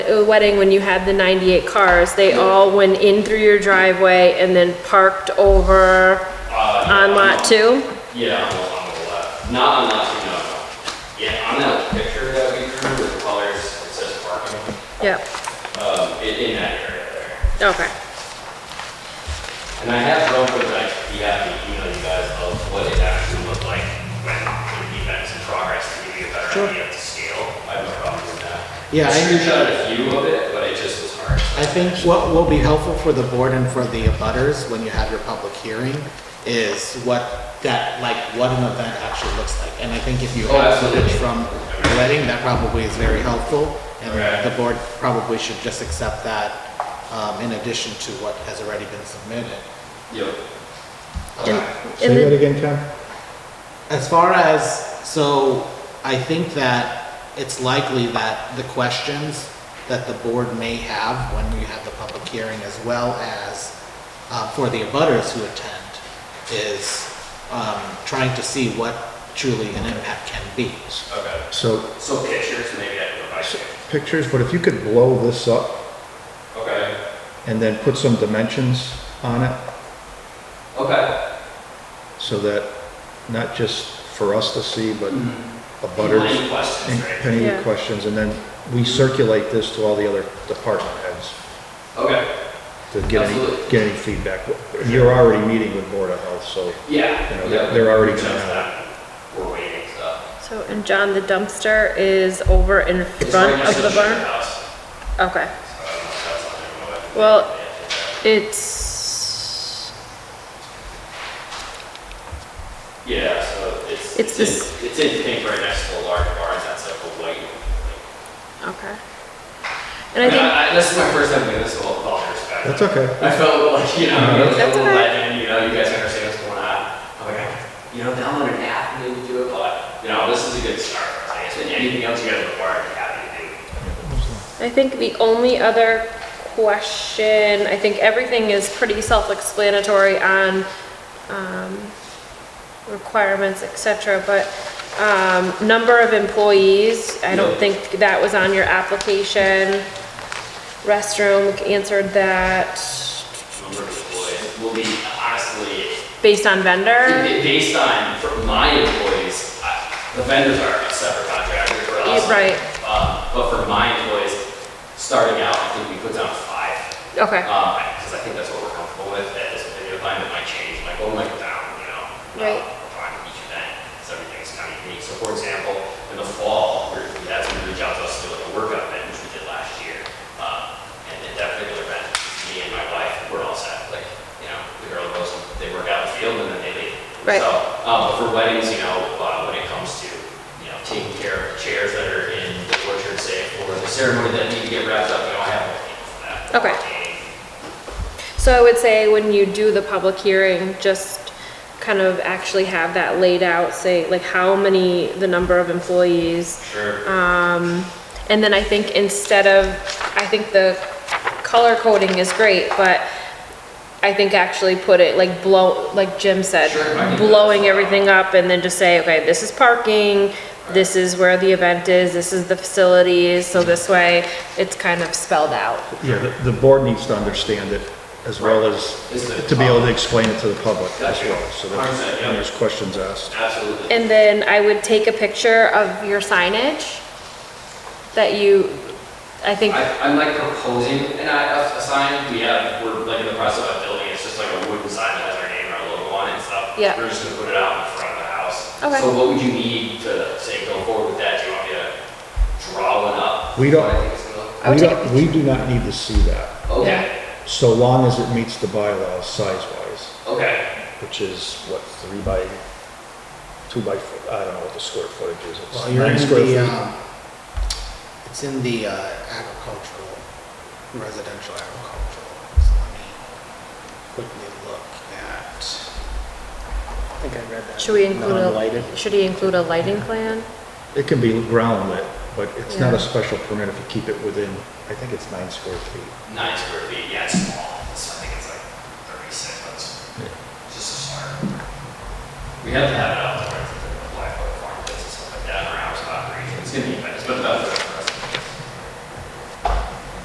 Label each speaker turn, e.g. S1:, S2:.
S1: the wedding when you had the 98 cars, they all went in through your driveway and then parked over
S2: Uh, yeah,
S1: on lot two?
S2: Yeah, on the, on the left. Not on lot two, no, no. Yeah, on that picture that we drew with the colors, it says parking,
S1: Yep,
S2: um, in, in that area there.
S1: okay.
S2: And I have room for like, be happy to email you guys of what it actually looked like when the event's in progress to give you a better idea of the scale. I have no problem with that. I
S3: Yeah, I-
S2: screenshot a few of it, but it just was hard.
S3: I think what will be helpful for the board and for the abutters when you have your public hearing is what that, like, what an event actually looks like. And I think if you
S2: Oh,
S3: have
S2: absolutely.
S3: footage from the wedding, that probably is very helpful.
S2: Right.
S3: And the board probably should just accept that, um, in addition to what has already been submitted.
S2: Yep.
S1: And-
S4: Say
S1: And
S4: that
S1: then,
S4: again, Tom?
S3: As far as, so I think that it's likely that the questions that the board may have when we have the public hearing as well as uh, for the abutters who attend is um, trying to see what truly an impact can be.
S2: Okay.
S4: So
S2: So pictures, maybe I can provide you.
S4: pictures, but if you could blow this up
S2: Okay.
S4: and then put some dimensions on it
S2: Okay.
S4: so that not just for us to see, but a
S2: Any
S4: butters
S2: questions,
S4: and
S2: Hmm. right?
S4: any
S1: Yeah.
S4: questions, and then we circulate this to all the other department heads
S2: Okay.
S4: to get any,
S2: Absolutely.
S4: get any feedback. You're already meeting with Board of Health, so
S2: Yeah.
S4: You know,
S2: yeah,
S4: they're- they're already
S2: we
S4: gonna
S2: just
S4: have it.
S2: that. We're waiting, so.
S1: so, and John, the dumpster is over in
S2: It's right
S1: front
S2: next
S1: of
S2: to
S1: the barn?
S2: house,
S1: Okay.
S2: so I don't know if that's on there or what.
S1: Well, it's,
S2: Yeah, so it's,
S1: It's
S2: it's in,
S1: this-
S2: it's in pink right next to a large barn, that's like a white.
S1: okay. And I
S2: And
S1: think
S2: I, I, this is my first time doing this, so with all due respect.
S4: that's okay.
S2: I felt like, you know, I was a
S1: That's
S2: little
S1: okay.
S2: legend, you know, you guys understand what's going on. I'm like, you know, download an app and maybe do it, but, you know, this is a good start. I guess, and anything else you guys require, I'd be happy to do.
S1: I think the only other question, I think everything is pretty self-explanatory on um, requirements, et cetera, but um, number of employees, I don't
S2: No.
S1: think that was on your application. Restroom, we answered that
S2: Number of employees will be honestly,
S1: based on vendor.
S2: it- based on, for my employees, I- the vendors are a separate contractor for us.
S1: Right,
S2: Um, but for my employees, starting out, I think we put down five.
S1: okay,
S2: because Uh, I think that's what we're comfortable with at this video time, it might change, it might go like down, you know?
S1: Right.
S2: On each event, so everything's kind of unique, so for example, in the fall, we're, that's when we reach out to us to do like a workout event, which we did last year. Um, and at that particular event, me and my wife, we're all set, like, you know, the girl goes, they work out in the field and then they leave.
S1: Right.
S2: So, um, but for weddings, you know, uh, when it comes to, you know, taking care of the chairs that are in the orchard, say, for the ceremony that need to get wrapped up, you know, I have a people for that.
S1: Okay. so I would say when you do the public hearing, just kind of actually have that laid out, say like how many, the number of employees,
S2: Sure.
S1: Um, And then I think instead of, I think the color coding is great, but I think actually put it like blow, like Jim said,
S2: Sure, I can do that.
S1: blowing everything up and then just say, okay, this is parking, this is where the event is, this is the facilities, so this way it's kind of spelled out.
S4: Yeah, the, the board needs to understand it as well as
S2: Is the-
S4: to be able to explain it to the public as
S2: Gotcha.
S4: well. So
S2: Understand,
S4: that
S2: yeah.
S4: when there's questions asked.
S2: Absolutely.
S1: And then I would take a picture of your signage that you, I think,
S2: I, I'm like proposing an, i- a sign, we have, we're like in the process of building, it's just like a wooden sign that has our name and our logo on it and stuff.
S1: Yeah.
S2: We're just gonna put it out in front of the house.
S1: Okay.
S2: So what would you need to say go forward with that? Do you want me to draw one up?
S4: We don't-
S2: What I think it's gonna look-
S1: I
S4: We
S1: would take a
S4: don't, we do not need to see that,
S2: Okay,
S4: so long as it meets the bylaws size-wise,
S2: okay,
S4: which is what, three by, two by, f- I don't know what the square footage is. It's
S3: Well, you're
S4: nine
S3: in
S4: square
S3: the,
S4: feet.
S3: um, it's in the uh, agricultural, residential agricultural. So let me quickly look at, I think I read that.
S1: should we include a,
S3: Non-lighted.
S1: should he include a lighting plan?
S4: It can be ground lit, but it's not
S1: Yeah.
S4: a special permit if you keep it within, I think it's nine square feet.
S2: nine square feet, yeah, it's small, it's, I think it's like thirty-six, but it's it's just a start. We have to have it out there, it's like a black book farm, business, stuff like that, in our house, about three, it's gonna be, it's been about thirty